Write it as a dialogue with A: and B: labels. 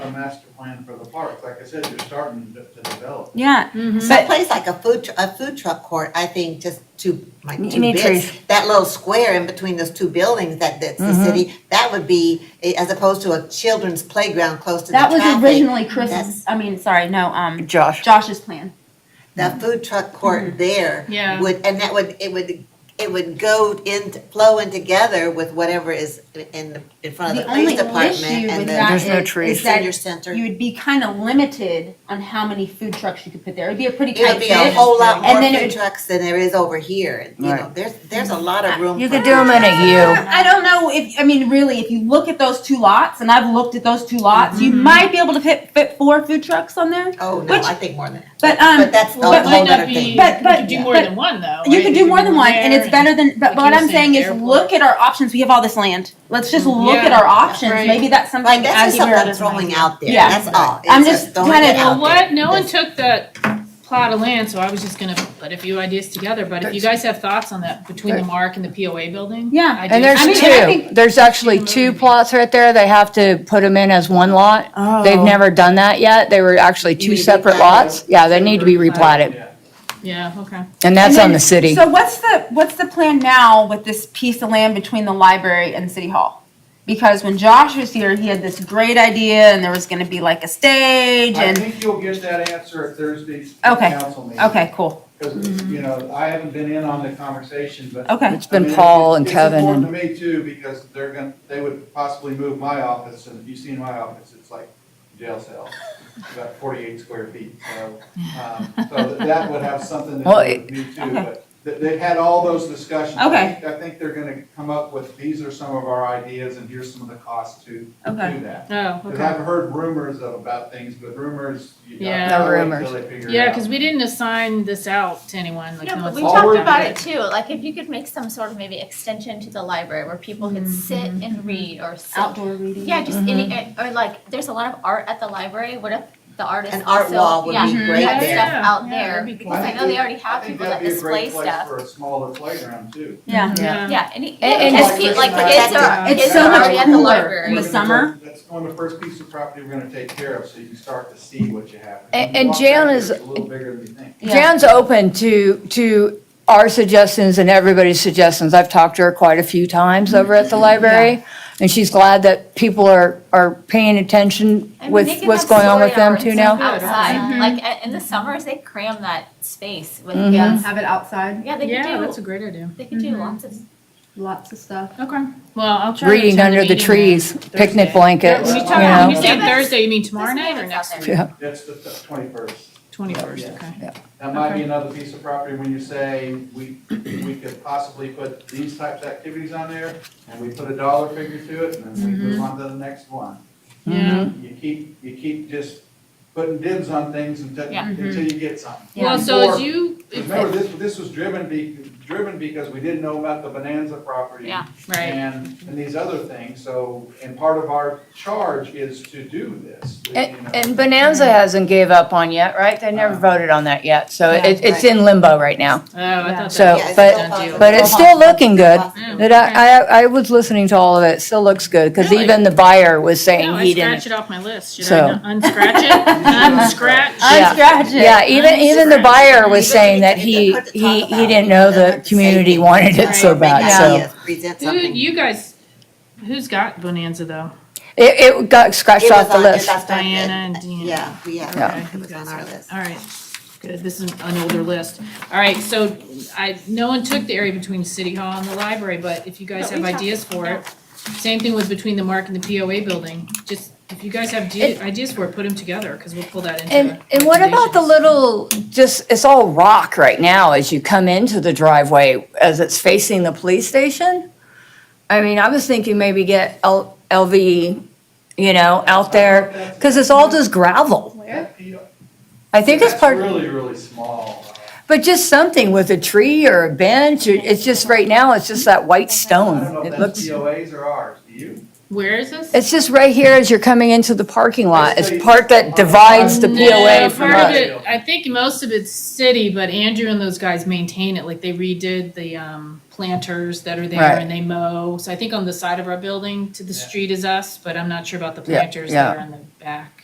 A: a master plan for the park. Like I said, you're starting to to develop.
B: Yeah,
C: But
B: but
C: place like a food, tr- a food truck court, I think just two, like
B: You
C: two
B: need
C: bits,
B: trees.
C: that little square in between those two buildings that, that's the
D: Mm-hmm.
C: city, that would be, eh, as opposed to a children's playground close to the
D: That
C: traffic.
D: was originally Chris's,
C: That's-
D: I mean, sorry, no, um,
B: Josh,
D: Josh's plan.
C: The food truck court there
E: Yeah.
C: would, and that would, it would, it would go in, flow in together with whatever is in, in front of
D: The
C: Uh, the police
D: only
C: department
D: issue with
C: and
D: that
C: the
B: There's no
D: is-
B: trees.
D: is
C: senior
D: that
C: center.
D: you would be kind of limited on how many food trucks you could put there. It'd be a pretty
C: It
D: tight
C: would be a
D: fit.
C: whole lot
D: And
C: more
D: then it
C: food
D: would-
C: trucks than there is over here, you know,
B: Right.
C: there's, there's a lot of room.
B: you
C: for
B: could
C: food
B: do them in
C: trucks.
B: a U.
D: I don't know if, I mean, really, if you look at those two lots, and I've looked at those two lots, you
B: Mm-hmm.
D: might be able to fit, fit four food trucks on there.
C: Oh, no,
D: Which-
C: I think more than that.
D: But, um,
C: But that's the
D: but-
C: whole
E: might
C: other
E: not be,
C: thing.
E: you
D: But- but-
E: could do more
D: but
E: than one though.
D: You
E: right?
D: could do more than one, and
E: there
D: it's better than. But
E: like
D: what
E: you were
D: I'm
E: saying,
D: saying is,
E: airport.
D: look at our options. We have all this land. Let's just
B: Mm-hmm.
D: look at
E: Yeah,
D: our options.
E: right.
D: Maybe that's something.
C: Like, that's
D: as
C: just
D: you were-
C: something I'm throwing out there,
D: Yeah.
C: that's all.
D: I'm
C: It's
D: just
C: throwing
D: kinda-
C: it
D: Well,
E: Well,
C: out
E: what?
C: there.
E: No one
C: That's-
E: took that plot of land, so I was just gonna put a few ideas together, but if you guys have thoughts on that between the mark and the POA building?
D: Yeah.
E: I
F: And
E: do.
F: there's
D: I mean, and I
F: two,
D: think-
F: there's actually two plots right there, they have to put them in as one lot.
B: Oh.
F: They've never done that yet, they were actually
C: need
F: two
C: to replat
F: separate
C: it.
F: lots. Yeah, they need to be replatted,
A: Yeah.
E: Yeah, okay.
F: and that's
D: And
F: on
D: then-
F: the city.
D: So what's the what's the plan now with this piece of land between the library and city hall? Because when Josh was here, he had this great idea, and there was going to be like a stage,
A: I
D: and
A: think you'll get that answer at Thursday's
D: Okay.
A: council meeting.
D: okay, cool,
A: Because, you know, I haven't been in on the conversation, but.
D: okay,
F: It's been
A: I mean,
F: Paul
A: it-
F: Oh, and Kevin
A: It's
F: and,
A: important to me too, because they're gonna, they would possibly move my office, and if you've seen my office, it's like jail cell, It's about forty-eight square feet, so, um, so that would have something to do
F: Well,
A: with me too,
D: okay.
A: but th- they've had all those discussions. I
D: Okay.
A: think- I think they're gonna come up with, these are some of our ideas, and here's some of the costs to do
D: Okay.
A: that.
E: Oh,
A: Because
E: okay.
A: I've heard rumors of- about things, but rumors, you
E: Yeah.
A: know,
F: No
A: I wait
F: rumors.
A: till they figure it out.
E: Yeah, because we didn't assign this out to anyone, like
G: No,
E: no
G: but
E: one's.
G: we
A: all
G: talked
A: we're
G: about
A: doing.
G: it too, like if you could make some sort of maybe extension to the library where people could sit and read or sit.
D: outdoor reading.
G: Yeah, just any, eh, or like, there's a lot of art at the library, what if the artist
C: An
G: also,
C: art wall would
G: yeah,
C: be
D: Mhm.
C: great
G: have
C: there.
G: stuff out
E: Yeah,
G: there,
E: that'd be
G: because
A: cool.
G: I know they already have people that display
A: I think that'd
G: stuff.
A: be a great place for a smaller playground too.
D: yeah.
E: Yeah.
G: Yeah, any,
F: And-
G: yeah,
F: and-
G: because pe- like
A: Like
G: kids
C: that.
G: are,
D: It's
G: kids
D: so
G: are
D: much
G: already at the
D: cooler.
G: library.
D: The summer?
A: That's one of the first piece of property we're gonna take care of, so you can start to see what you have.
F: And-
A: You
F: and
A: walk
F: Jan
A: out there,
F: is-
A: It's a little bigger than you think.
D: Yeah.
F: Jan's open to, to our suggestions and everybody's suggestions. I've talked to her quite a few times over at the library, and she's glad that people are, are paying attention
G: I mean, they
F: with
G: can
F: what's
G: have
F: going on with
G: story
F: them
G: hours
F: too now.
G: Outside,
E: Mhm.
G: like uh, in the summers, they cram that space with
F: Mhm.
G: kids.
D: have it outside,
G: Yeah, they
E: Yeah,
G: could
E: that's a Mm-hmm.
G: do,
E: great idea.
G: they could do
D: Mhm.
G: lots of
D: lots of stuff.
E: Okay, well, I'll try to.
F: Reading
E: attend
F: under the
E: meeting
F: trees, picnic
E: Thursday.
F: blankets,
E: then.
F: you
E: When you talk,
F: know?
E: when you say
G: Yeah.
E: Thursday, you mean tomorrow
G: There's
E: night or
G: neighbors
E: next
G: out
E: week?
G: there.
F: Yeah.
A: That's the twenty-first.
E: Twenty-first,
A: Yeah.
E: okay.
A: That might
E: Okay.
A: be another piece of property when you say, we, we could possibly put these types of activities on there, and we put a dollar figure to it, and then we move on to the next one.
E: Yeah.
A: You keep, you keep just putting dibs on things until,
G: Yeah.
A: until you get something.
E: Well, so
A: Before-
E: as you, if-
A: Remember, this, this was driven be, driven because we didn't know about the Bonanza property.
G: Yeah.
E: right,
A: And, and these other things, so, and part of our charge is to do this, you know.
F: And and Bonanza hasn't gave up on yet, right? They never voted on that yet, so
D: Yeah,
F: it, it's in limbo right now.
E: oh, I thought
F: So,
E: that.
C: Yeah, it's
F: but-
C: still possible.
F: But it's still looking good.
C: possible.
F: It, I, I- I was listening to all of it, It still looks good, because
E: Really?
F: even the buyer was
E: No,
F: saying
E: I
F: he didn't.
E: scratched it off my list. Should
F: So-
E: I not unscratch it? Unscratch.
F: Yeah.
D: Unscratch it.
F: Yeah, even, even the buyer was
C: Even
F: saying that
C: if you
F: he,
C: put the top
F: he, he
C: out,
F: didn't know
C: then
F: the
C: that's the
F: community
C: safety.
F: wanted it so
E: Right.
F: bad,
C: Make
F: so.
C: ideas, Present
E: Who,
C: something.
E: you guys, who's got Bonanza though?
F: It, it got
C: It
F: scratched
C: was
F: off the
C: on- it
F: list.
C: got started.
E: Diana and Deanna.
C: Yeah, we have,
E: Yeah.
C: it. it was on our list.
E: All right, good. This is an older list. All right, so I, no one took the area between City Hall and the library, but if you guys
G: But
E: have
G: we talked
E: ideas for
G: about-
E: it, same thing with between the Mark and the POA building. Just, if you guys have de- ideas for it, put them together, because we'll pull that into.
F: And, and what about the
E: recommendations.
F: little, just, it's all rock right now as you come into the driveway, as it's facing the police station? I mean, I was thinking maybe get L, LV, you know, out there, because it's all just gravel.
A: That P-
F: I think it's
A: that's
F: part.
A: Really, really small.
F: But just something with a tree or a bench, or- it's just, right now, it's just that
A: I
F: white
A: don't know if
F: stone. It
A: that's
F: looks,
A: POAs or ours, do you?
E: Where is this?
F: it's just right here as you're coming into the parking lot, it's part that divides the
E: No,
F: POA from
E: part of
F: us.
E: it- I think most of it's city, but Andrew and those guys maintain it, like they redid the, um, planters that are there
F: Right.
E: and they mow. So I think on the side of our building to the
A: Yeah.
E: street is us, but I'm not sure about the
F: Yeah,
E: planters that
F: yeah.
E: are in the back.